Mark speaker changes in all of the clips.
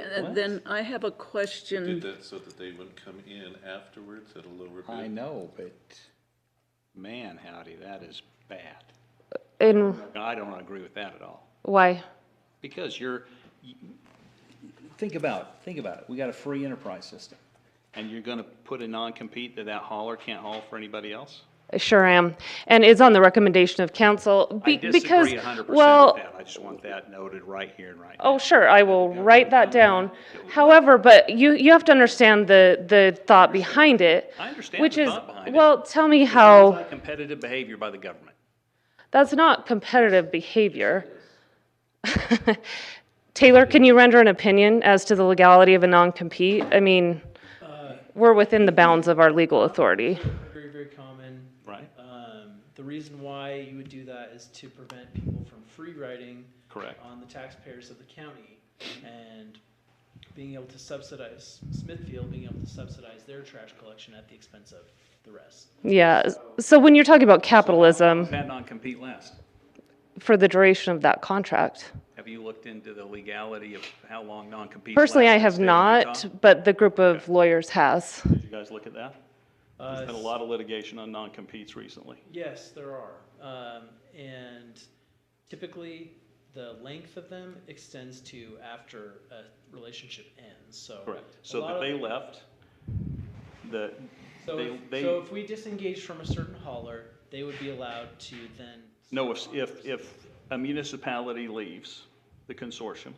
Speaker 1: Uh, Then I have a
Speaker 2: Did
Speaker 1: question.
Speaker 2: that so that they wouldn't come in afterwards at a lower
Speaker 3: I
Speaker 2: bid?
Speaker 3: know, but man, howdy, that is bad.
Speaker 4: And
Speaker 3: I don't agree with that at all.
Speaker 4: why?
Speaker 3: Because you're, you- think about, think about it. We got a free enterprise system. And you're gonna put a non-compete that that hauler can't haul for anybody else?
Speaker 4: I sure am. And it's on the recommendation of council.
Speaker 3: I
Speaker 4: be- because-
Speaker 3: disagree a hundred
Speaker 4: Well,
Speaker 3: percent with that. I just want that noted right here and right now.
Speaker 4: Oh, sure, I will write that down. However, but you, you have to understand the, the thought behind it.
Speaker 3: I understand
Speaker 4: which
Speaker 3: the
Speaker 4: is,
Speaker 3: thought behind it.
Speaker 4: Well, tell me
Speaker 3: It's
Speaker 4: how,
Speaker 3: not Competitive behavior by the government.
Speaker 4: that's not competitive behavior. Taylor, can you render an opinion as to the legality of a non-compete? I mean, we're within the bounds of our legal authority.
Speaker 5: Very, very common.
Speaker 3: Right.
Speaker 5: Um, the reason why you would do that is to prevent people from free riding
Speaker 3: Correct.
Speaker 5: on the taxpayers of the county and being able to subsidize Smithfield, being able to subsidize their trash collection at the expense of the rest.
Speaker 4: Yeah, so when you're talking about capitalism
Speaker 3: That non-compete last.
Speaker 4: for the duration of that contract,
Speaker 3: Have you looked into the legality of how long non-compete?
Speaker 4: personally, I
Speaker 3: lasts in the
Speaker 4: have
Speaker 3: state of
Speaker 4: not,
Speaker 3: Utah?
Speaker 4: but the group of lawyers has.
Speaker 3: Did you guys look at that?
Speaker 5: Uh,
Speaker 3: There's been a lot of litigation on non-competes recently.
Speaker 5: Yes, there are. Um, and typically, the length of them extends to after a relationship ends, so.
Speaker 3: Correct.
Speaker 5: a
Speaker 3: So
Speaker 5: lot
Speaker 3: that
Speaker 5: of-
Speaker 3: they left, the,
Speaker 5: So,
Speaker 3: they,
Speaker 5: if- so
Speaker 3: they,
Speaker 5: if we disengage from a certain hauler, they would be allowed to then.
Speaker 3: no, if, if, if a municipality leaves the consortium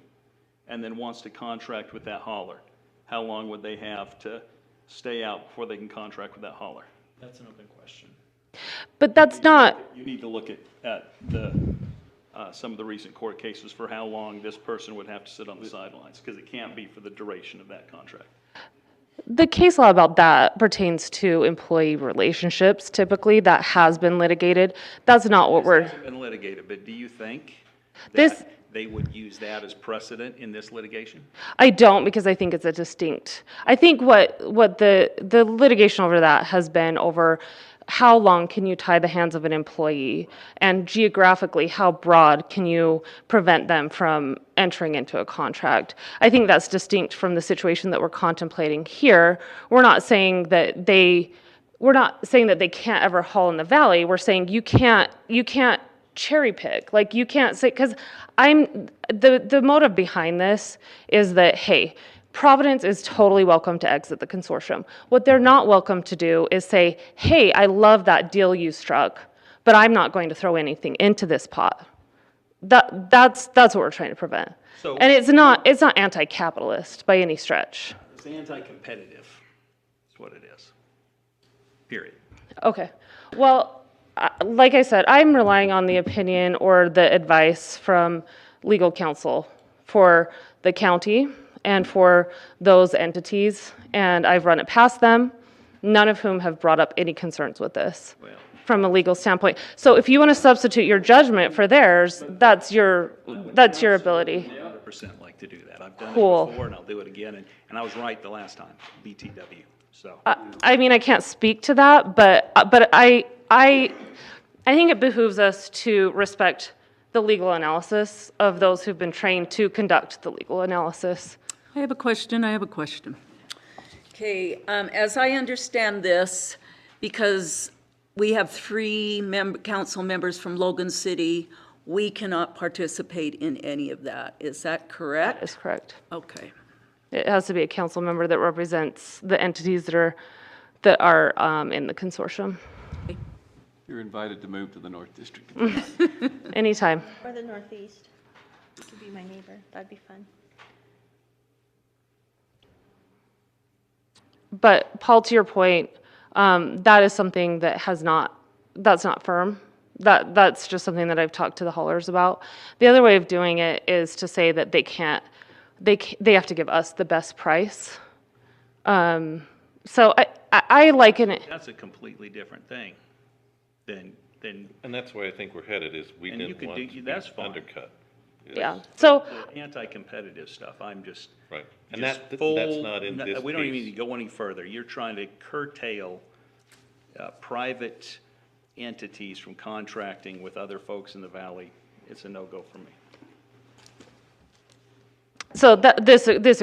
Speaker 3: and then wants to contract with that hauler, how long would they have to stay out before they can contract with that hauler?
Speaker 5: That's an open question.
Speaker 4: But that's not,
Speaker 3: You need to look at, at the, uh, some of the recent court cases for how long this person would have to sit on the sidelines, because it can't be for the duration of that contract.
Speaker 4: the case law about that pertains to employee relationships typically, that has been litigated. That's not what
Speaker 3: This
Speaker 4: we're,
Speaker 3: hasn't been litigated, but do you think
Speaker 4: This-
Speaker 3: that they would use that as precedent in this litigation?
Speaker 4: I don't because I think it's a distinct. I think what, what the, the litigation over that has been over how long can you tie the hands of an employee? And geographically, how broad can you prevent them from entering into a contract? I think that's distinct from the situation that we're contemplating here. We're not saying that they, we're not saying that they can't ever haul in the valley. We're saying you can't, you can't cherry pick. Like you can't say because I'm the the motive behind this is that hey, Providence is totally welcome to exit the consortium. What they're not welcome to do is say, hey, I love that deal you struck, but I'm not going to throw anything into this pot. That that's that's what we're trying to prevent.
Speaker 3: So-
Speaker 4: and it's not it's not anti-capitalist by any stretch.
Speaker 3: It's anti-competitive, is what it is. Period.
Speaker 4: Okay. Well, I- like I said, I'm relying on the opinion or the advice from legal counsel for the county and for those entities, and I've run it past them, none of whom have brought up any concerns with this
Speaker 3: Well-
Speaker 4: from a legal standpoint. So if you want to substitute your judgment for theirs, that's your, that's your ability.
Speaker 3: Hundred percent like to do that. I've done it
Speaker 4: Cool.
Speaker 3: before and I'll do it again, and, and I was right the last time, BTW, so.
Speaker 4: I mean, I can't speak to that, but, uh, but I, I, I think it behooves us to respect the legal analysis of those who've been trained to conduct the legal analysis.
Speaker 1: I have a question, I have a question. Okay, um, as I understand this, because we have three member, council members from Logan City, we cannot participate in any of that. Is that correct?
Speaker 4: Is correct.
Speaker 1: Okay.
Speaker 4: It has to be a council member that represents the entities that are, that are um, in the consortium.
Speaker 6: You're invited to move to the North District.
Speaker 4: Anytime.
Speaker 7: Or the northeast. You could be my neighbor. That'd be fun.
Speaker 4: But Paul, to your point, um, that is something that has not, that's not firm. That, that's just something that I've talked to the haulers about. The other way of doing it is to say that they can't, they, ca- they have to give us the best price. Um, so I, I, I liken it,
Speaker 3: That's a completely different thing than, than
Speaker 2: And that's where I think we're headed, is we
Speaker 3: And you
Speaker 2: didn't
Speaker 3: could
Speaker 2: want
Speaker 3: do-
Speaker 2: to be
Speaker 3: that's fine.
Speaker 2: undercut.
Speaker 4: yeah. So
Speaker 3: the anti-competitive stuff. I'm just.
Speaker 2: Right. And
Speaker 3: just
Speaker 2: that, that's
Speaker 3: full-
Speaker 2: not in
Speaker 3: no,
Speaker 2: this
Speaker 3: We don't even
Speaker 2: piece.
Speaker 3: need to go any further. You're trying to curtail uh, private entities from contracting with other folks in the valley. It's a no-go for me.
Speaker 4: So that, this, this